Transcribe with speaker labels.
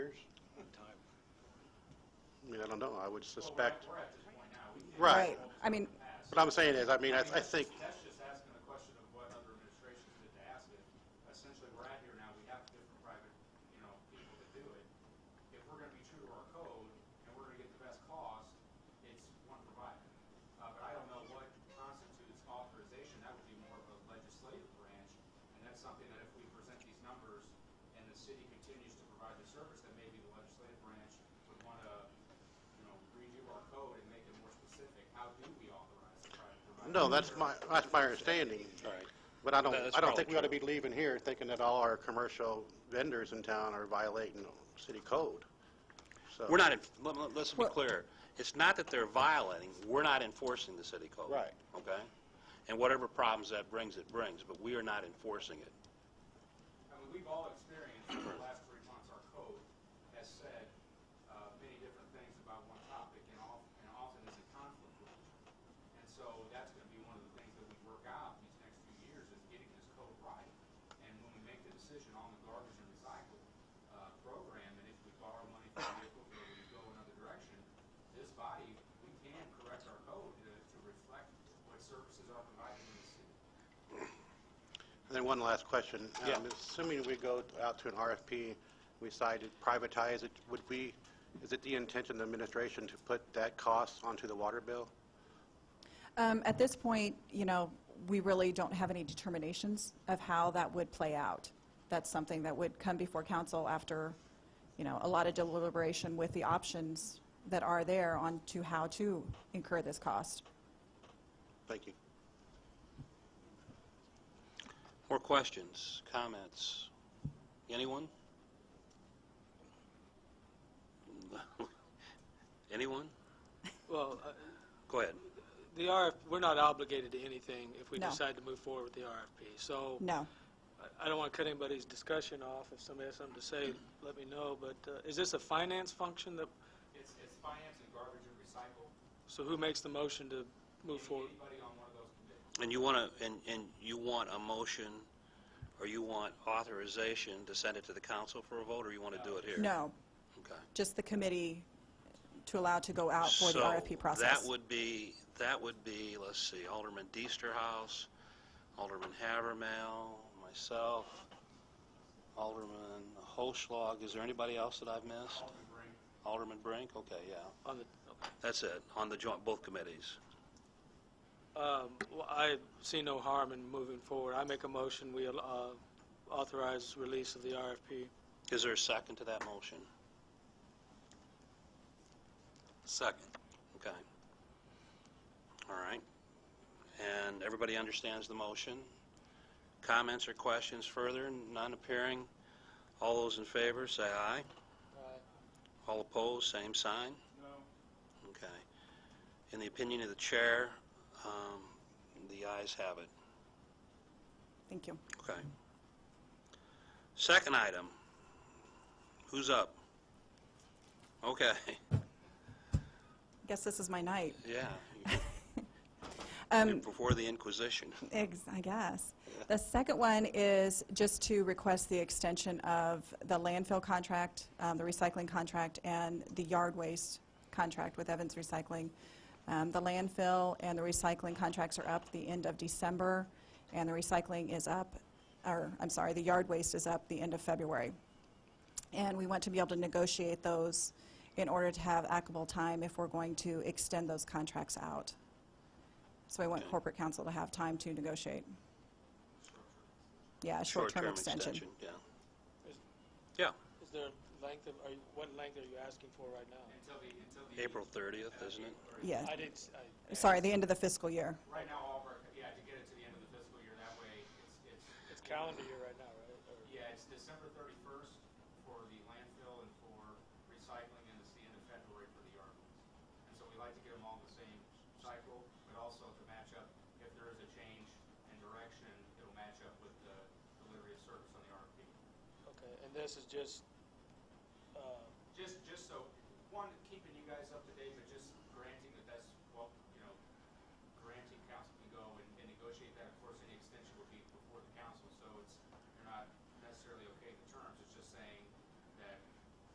Speaker 1: years?
Speaker 2: time.
Speaker 1: I mean, I don't know, I would suspect,
Speaker 3: We're at this point now, we can't.
Speaker 1: right.
Speaker 4: I mean,
Speaker 1: What I'm saying is, I mean, I I think,
Speaker 3: That's just asking the question of what other administrations did to ask it. Essentially, we're at here now, we have different private, you know, people that do it. If we're gonna be true to our code and we're gonna get the best cost, it's one provider. Uh, but I don't know what constitutes authorization, that would be more of a legislative branch. And that's something that if we present these numbers and the city continues to provide the service, then maybe the legislative branch would wanna, you know, redo our code and make it more specific. How do we authorize the private provider?
Speaker 1: no, that's my, that's my understanding. But I don't,
Speaker 2: That's
Speaker 1: I don't think we ought to
Speaker 2: probably
Speaker 1: be leaving here thinking that all our commercial vendors in town are violating city code. So-
Speaker 2: We're not, en- let- let- let's be
Speaker 4: Well-
Speaker 2: clear. It's not that they're violating, we're not enforcing the city code.
Speaker 1: Right.
Speaker 2: Okay? And whatever problems that brings, it brings, but we are not enforcing it.
Speaker 3: I mean, we've all experienced over the last three months, our code has said uh, many different things about one topic and of- and often is in conflict with each other. And so that's going to be one of the things that we work out these next few years is getting this code right. And when we make the decision on the garbage and recycle uh, program, and if we borrow money from the vehicle or we go another direction, this body, we can correct our code to to reflect what services are provided in the city.
Speaker 1: And then one last question.
Speaker 2: Yeah.
Speaker 1: Um, Assuming we go out to an RFP, we decide to privatize it, would we, is it the intention of the administration to put that cost onto the water bill?
Speaker 4: um, at this point, you know, we really don't have any determinations of how that would play out. That's something that would come before council after, you know, a lot of deliberation with the options that are there on to how to incur this cost.
Speaker 1: Thank you.
Speaker 2: More questions, comments? Anyone? Anyone?
Speaker 5: Well, uh,
Speaker 2: Go ahead.
Speaker 5: the RF, we're not obligated to anything if we
Speaker 4: No.
Speaker 5: decide to move forward with the RFP. So
Speaker 4: No.
Speaker 5: I- I don't want to cut anybody's discussion off. If somebody has something to say, let me know. But uh, is this a finance function that,
Speaker 3: It's it's finance and garbage and recycle.
Speaker 5: so who makes the motion to move forward?
Speaker 3: Anybody on one of those committees.
Speaker 2: And you want to, and, and you want a motion, or you want authorization to send it to the council for a vote, or you want to do it here?
Speaker 4: No.
Speaker 2: Okay.
Speaker 4: Just the committee to allow to go out for the
Speaker 2: So,
Speaker 4: RFP process.
Speaker 2: that would be, that would be, let's see, Alderman House, Alderman Havermill, myself, Alderman Hochschlag, is there anybody else that I've missed? Alderman Brink, okay, yeah.
Speaker 5: On the, okay.
Speaker 2: That's it, on the joint, both committees.
Speaker 5: Um, well, I see no harm in moving forward. I make a motion, we uh, authorize release of the RFP.
Speaker 2: Is there a second to that motion? Second. Okay. All right. And everybody understands the motion? Comments or questions further? None appearing. All those in favor, say aye. All opposed, same sign? No. Okay. In the opinion of the chair, um, the ayes have it.
Speaker 4: Thank you.
Speaker 2: Okay. Second item. Who's up? Okay,
Speaker 4: Guess this is my night.
Speaker 2: yeah.
Speaker 4: Um,
Speaker 2: Before the Inquisition.
Speaker 4: Ex- I guess. The second one is just to request the extension of the landfill contract, um, the recycling contract, and the yard waste contract with Evans Recycling. Um, The landfill and the recycling contracts are up the end of December, and the recycling is up, or, I'm sorry, the yard waste is up the end of February. And we want to be able to negotiate those in order to have applicable time if we're going to extend those contracts out. So we want corporate counsel to have time to negotiate. Yeah, a short-term extension.
Speaker 2: Yeah.
Speaker 5: Is-
Speaker 2: Yeah,
Speaker 5: Is there length of, are you- what length are you asking for right now?
Speaker 3: Until the, until the.
Speaker 2: April 30th, isn't it?
Speaker 5: I
Speaker 4: Yeah,
Speaker 5: didn't, s- I-
Speaker 4: sorry, the end of the fiscal year.
Speaker 3: Right now, all of our, yeah, to get it to the end of the fiscal year, that way, it's, it's,
Speaker 5: it's calendar year right now, right? Or-
Speaker 3: yeah, it's December thirty-first for the landfill and for recycling, and it's the end of February for the yard waste. And so we like to get them all in the same cycle, but also to match up, if there is a change in direction, it'll match up with the delivery of service on the RFP.
Speaker 5: Okay, and this is just uh,